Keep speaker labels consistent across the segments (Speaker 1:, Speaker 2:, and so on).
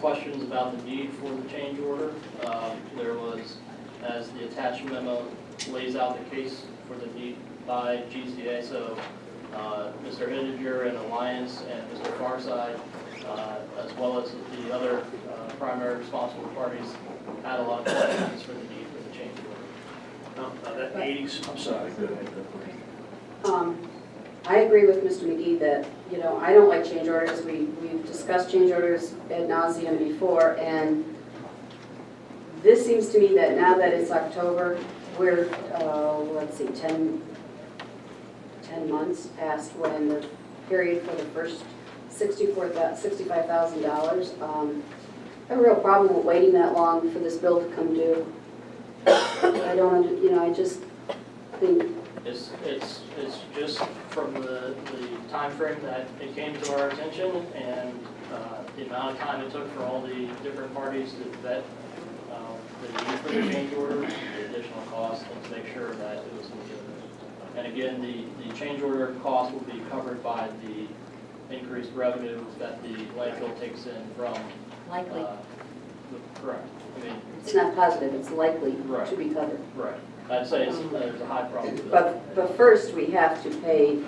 Speaker 1: questions about the need for the change order. Um, There was, as the attached memo lays out the case for the need by GCA, so uh, Mr. Integer and Alliance and Mr. Farside, uh, as well as the other uh, primary responsible parties, had a lot of questions for the need for the change order.
Speaker 2: No, uh, that eighties, I'm sorry, go ahead.
Speaker 3: Um, I agree with Mr. McGee that, you know, I don't like change orders. We, we've discussed change orders ad nauseum before, and this seems to me that now that it's October, we're, uh, let's see, 10, 10 months past when the period for the first sixty-four $65,000. Um, I have a real problem with waiting that long for this bill to come due. I don't, under- you know, I just think
Speaker 1: It's, it's, it's just from the, the timeframe that it came to our attention and uh, the amount of time it took for all the different parties to vet um, the need for the change order, the additional cost, and to make sure that it was legitimate. And again, the, the change order cost will be covered by the increased revenue that the landfill takes in from,
Speaker 4: likely.
Speaker 1: uh, the- correct, I mean,
Speaker 3: It's not positive, it's likely to
Speaker 1: Right.
Speaker 3: be covered.
Speaker 1: right. I'd say it's, there's a high probability.
Speaker 3: But, but first, we have to pay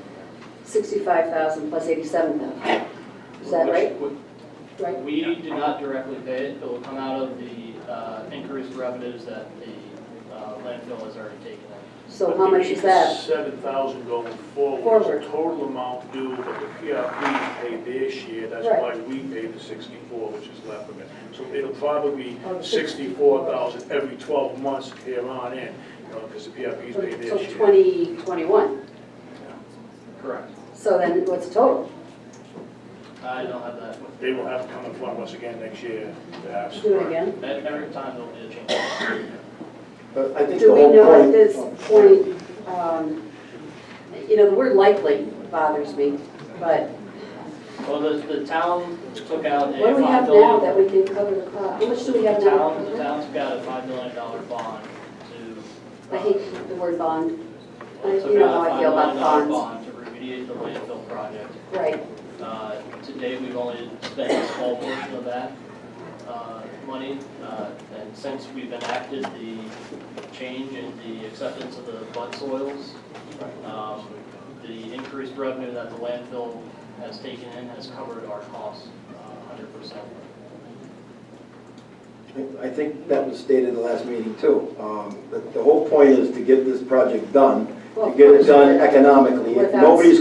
Speaker 3: 65,000 plus 87,000, is that
Speaker 1: Which
Speaker 3: right?
Speaker 1: would-
Speaker 3: right?
Speaker 1: We do not directly pay it, it will come out of the uh, increased revenues that the uh, landfill has already taken in.
Speaker 3: So how much is that?
Speaker 2: Seven thousand going forward,
Speaker 3: Forward.
Speaker 2: It's the total amount due, but the PRP paid this year, that's
Speaker 3: Right.
Speaker 2: why we paid the sixty-four, which is left of it. So it'll probably be
Speaker 3: Oh, the
Speaker 2: sixty-four thousand every twelve months here on in, you know, because the PRP's
Speaker 3: So
Speaker 2: paid this year.
Speaker 3: 2021,
Speaker 1: Correct.
Speaker 3: so then what's the total?
Speaker 1: I don't have that. with-
Speaker 2: They will have to come in front of us again next year to ask.
Speaker 3: Do it again?
Speaker 1: E- Every time there'll be a change.
Speaker 5: But I think the
Speaker 3: Do we
Speaker 5: whole
Speaker 3: know at
Speaker 5: point.
Speaker 3: this point, um, you know, the word likely bothers me, but
Speaker 1: Well, the, the town took out a
Speaker 3: what do we
Speaker 1: five
Speaker 3: have now that
Speaker 1: million.
Speaker 3: we can cover the cost? How much do we
Speaker 1: The
Speaker 3: have
Speaker 1: town, the
Speaker 3: now?
Speaker 1: town took out a five million dollar bond to. uh,
Speaker 3: I hate the word bond, I-
Speaker 1: took
Speaker 3: you know
Speaker 1: out a
Speaker 3: how I feel
Speaker 1: $5 million
Speaker 3: about bonds.
Speaker 1: Bond to remediate the landfill project.
Speaker 3: right?
Speaker 1: Uh, To date, we've only spent a small portion of that uh, money. Uh, And since we've enacted the change in the acceptance of the bud soils, um, the increased revenue that the landfill has taken in has covered our costs uh, 100%.
Speaker 5: I think that was stated in the last meeting too. Um, But the whole point is to get this project done, to get it done economically. If
Speaker 3: Without
Speaker 5: nobody's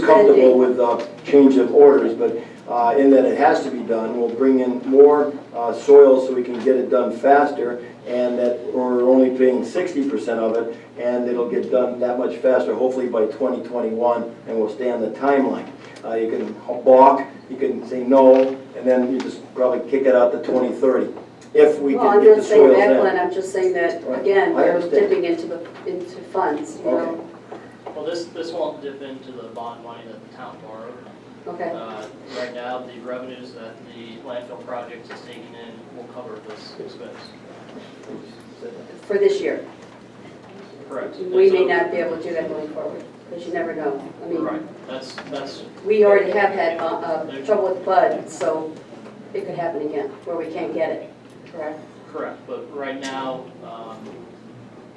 Speaker 3: spending.
Speaker 5: comfortable with uh change of orders, but uh, in that it has to be done, we'll bring in more uh, soil so we can get it done faster and that we're only paying sixty percent of it and it'll get done that much faster, hopefully by twenty twenty-one, and we'll stay on the timeline. Uh, You can balk, you can say no, and then you just probably kick it out to twenty thirty, if we
Speaker 3: Well,
Speaker 5: can
Speaker 3: I'm
Speaker 5: get the
Speaker 3: not saying
Speaker 5: soils in.
Speaker 3: that, Glenn, I'm just saying that,
Speaker 5: Right.
Speaker 3: again,
Speaker 5: I
Speaker 3: we're
Speaker 5: understand.
Speaker 3: dipping into the, into funds, you
Speaker 5: Okay.
Speaker 3: know?
Speaker 1: Well, this, this won't dip into the bond money that the town borrowed.
Speaker 3: Okay,
Speaker 1: Uh, Right now, the revenues that the landfill project is taking in will cover this expense.
Speaker 3: for this year.
Speaker 1: Correct.
Speaker 3: We may
Speaker 1: And so-
Speaker 3: not be able to do that going forward, because you never know. I mean,
Speaker 1: Right, that's, that's
Speaker 3: we already have had uh, uh, trouble with Bud, so it could happen again, where we can't get it, correct?
Speaker 1: correct, but right now, um,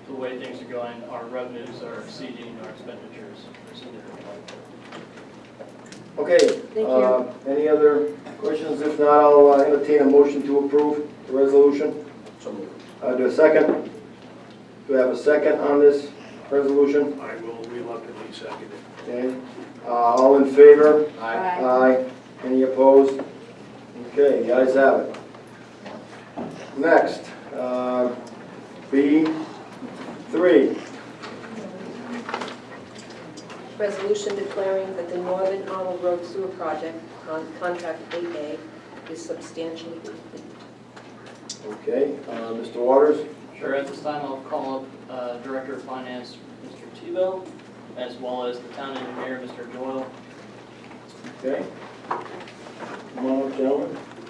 Speaker 1: the way things are going, our revenues are exceeding our expenditures significantly.
Speaker 5: Okay.
Speaker 3: Thank
Speaker 5: uh, Any other questions? If not, I'll uh, entertain a motion to approve the resolution. Uh, Do a second? Do I have a second on this resolution?
Speaker 2: I will reluctantly second it.
Speaker 5: Okay. Uh, All in favor?
Speaker 3: Aye.
Speaker 5: Aye. Any opposed? Okay, the ayes have it. Next, uh, B3.
Speaker 6: Resolution declaring that the Northern Arnold Road Sewer Project, con- Contract 8A, is substantially complete.
Speaker 5: Okay, uh, Mr. Waters?
Speaker 1: Sure, at this time, I'll call up uh, Director of Finance, Mr. Tebow, as well as the town engineer, Mr. Doyle.
Speaker 5: Okay. Come on up, gentlemen.